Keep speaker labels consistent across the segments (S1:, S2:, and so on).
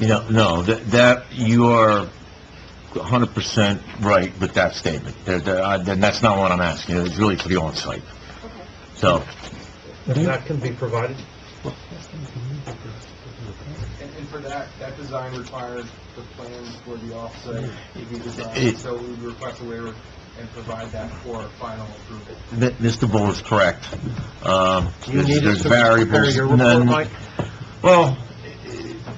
S1: You know, no, that, that, you are hundred percent right with that statement. There, there, I- then that's not what I'm asking, it's really for the on-site. So,
S2: And that can be provided?
S3: And, and for that, that design requires the plans for the offsite to be
S1: It-
S3: designed, so we would request a waiver and provide that for final approval.
S1: th- Mr. Bull is correct. Um,
S2: Do you
S1: there's
S2: need us
S1: there's
S2: to prepare
S1: variables.
S2: your report,
S1: none-
S2: Mike?
S1: Well,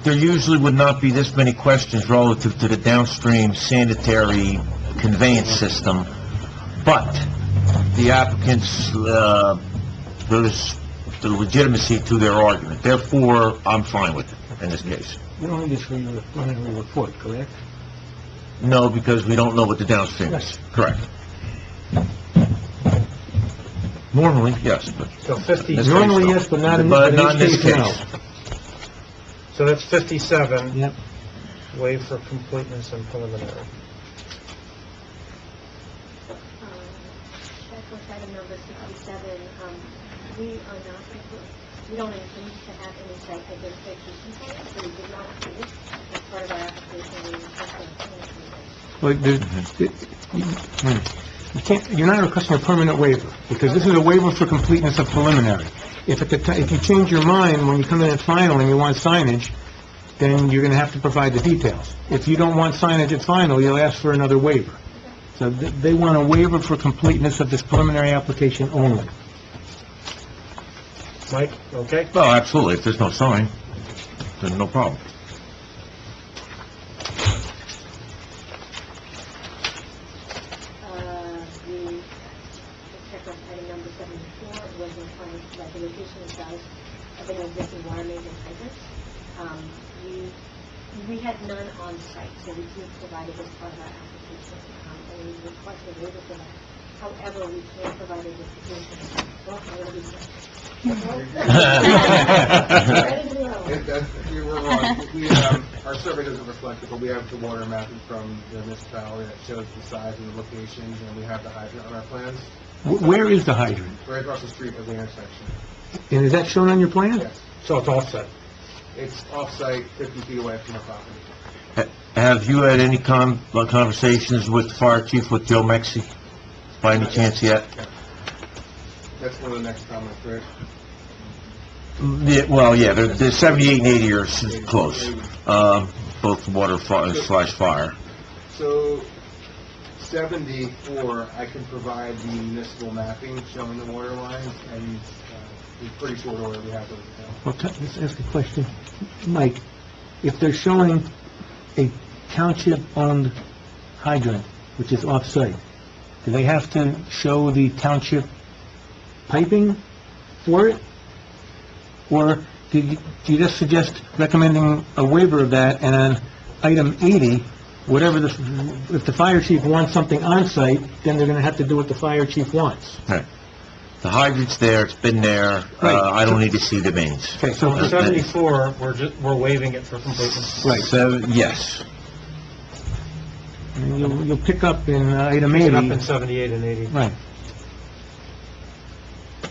S1: there usually would not be this many questions relative to the downstream sanitary conveyance system, but the applicants, uh, there's the legitimacy to their argument. Therefore, I'm fine with it in this case.
S4: You don't have this for your preliminary report, correct?
S1: No, because we don't know what the downstream is. Correct. Normally, yes, but...
S2: So 50,
S1: This case,
S4: Normally,
S1: no.
S4: yes, but not in-
S1: But
S4: in
S1: not in
S4: this
S1: this
S4: case, no.
S1: case.
S2: so that's 57,
S4: Yep.
S2: waive for completeness and preliminary.
S5: Um, Back with item number 67, um, we are not, we don't intend to have any site identification plans, so we did not do this as part of our application. We requested a plan approval.
S4: Well, there- it- hmm. You can't, you're not requesting a permanent waiver, because this is a waiver for completeness of preliminary. If at the, ti- if you change your mind when you come in at final and you want signage, then you're gonna have to provide the details. If you don't want signage at final, you'll ask for another waiver. So th- they want a waiver for completeness of this preliminary application only.
S2: Mike, okay?
S1: No, absolutely, if there's no sign, then no problem.
S5: Uh, we, check with item number 74, was required that the location and size of an existing water main and hydrants. Um, We, we had none on site, so we did provide it as part of our application, um, and we requested a waiver for that. However, we can't provide a justification. Well, I will be- Ready to go.
S3: If that, we were wrong, we, um, our survey doesn't reflect it, but we have the water mapping from the municipality that shows the size and the locations, and we have the hydrant on our plans,
S4: Wh- Where is the hydrant?
S3: right across the street at the intersection.
S4: And is that shown on your plan?
S3: Yes,
S2: So it's offset.
S3: it's offsite, fifty feet away from the property.
S1: Have you had any con, like, conversations with the fire chief, with Joe Mexi, by any chance yet?
S3: That's one of the next comments, right?
S1: Yeah, well, yeah, they're, they're seventy-eight and eighty are s- close, um, both water fi- slash fire.
S3: So, 74, I can provide the municipal mapping showing the water lines, and uh, in pretty short order, we have those now.
S4: Well, can- let's ask a question. Mike, if they're showing a township-owned hydrant, which is off-site, do they have to show the township piping for it? Or do you do you just suggest recommending a waiver of that, and on item 80, whatever the, if the fire chief wants something on-site, then they're going to have to do what the fire chief wants?
S1: The hydrant's there, it's been there,
S4: Right.
S1: uh, I don't need to see the mains.
S4: Okay, so,
S2: For 74, we're just, we're waiving it for completeness.
S4: right,
S1: Seven, yes,
S4: And you'll you'll pick up in uh, item
S2: Pick it
S4: 80...
S2: up in 78 and 80.
S4: Right.
S5: Um,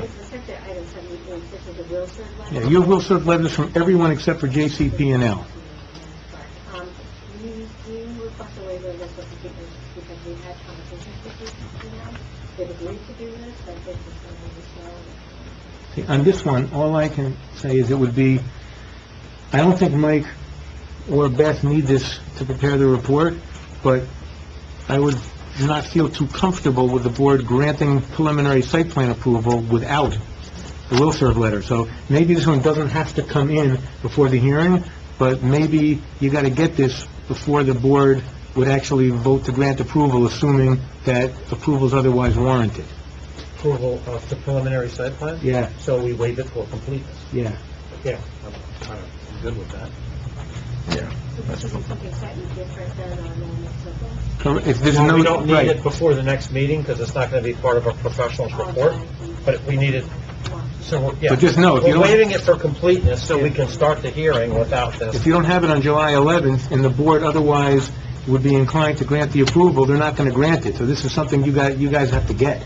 S5: With respect to item 74, this is a Wilson letter.
S4: Yeah, you will serve letters from everyone except for JCP and L.
S5: Um, we do request a waiver of this particular, because we had conversations with these people now. They've agreed to do this, but this is something we know.
S4: See, On this one, all I can say is it would be, I don't think Mike or Beth need this to prepare the report, but I would not feel too comfortable with the board granting preliminary site plan approval without the will serve letter. So maybe this one doesn't have to come in before the hearing, but maybe you got to get this before the board would actually vote to grant approval, assuming that approval is otherwise warranted.
S2: Approval of the preliminary site plan?
S4: Yeah,
S2: So we waive it for completeness.
S4: yeah.
S2: Yeah, I'm, I'm good with that.
S5: So this is something slightly different than our normal circle.
S4: Correct, if there's
S2: Well,
S4: no...
S2: we don't need
S4: right.
S2: it before the next meeting, because it's not going to be part of a professional's report, but we need it, so, we're- yeah.
S4: But just know, if you
S2: We're
S4: don't-
S2: waiving it for completeness, so we can start the hearing without
S4: If
S2: this.
S4: you don't have it on July 11th, and the board otherwise would be inclined to grant the approval, they're not going to grant it. So this is something you guys, you guys have to get.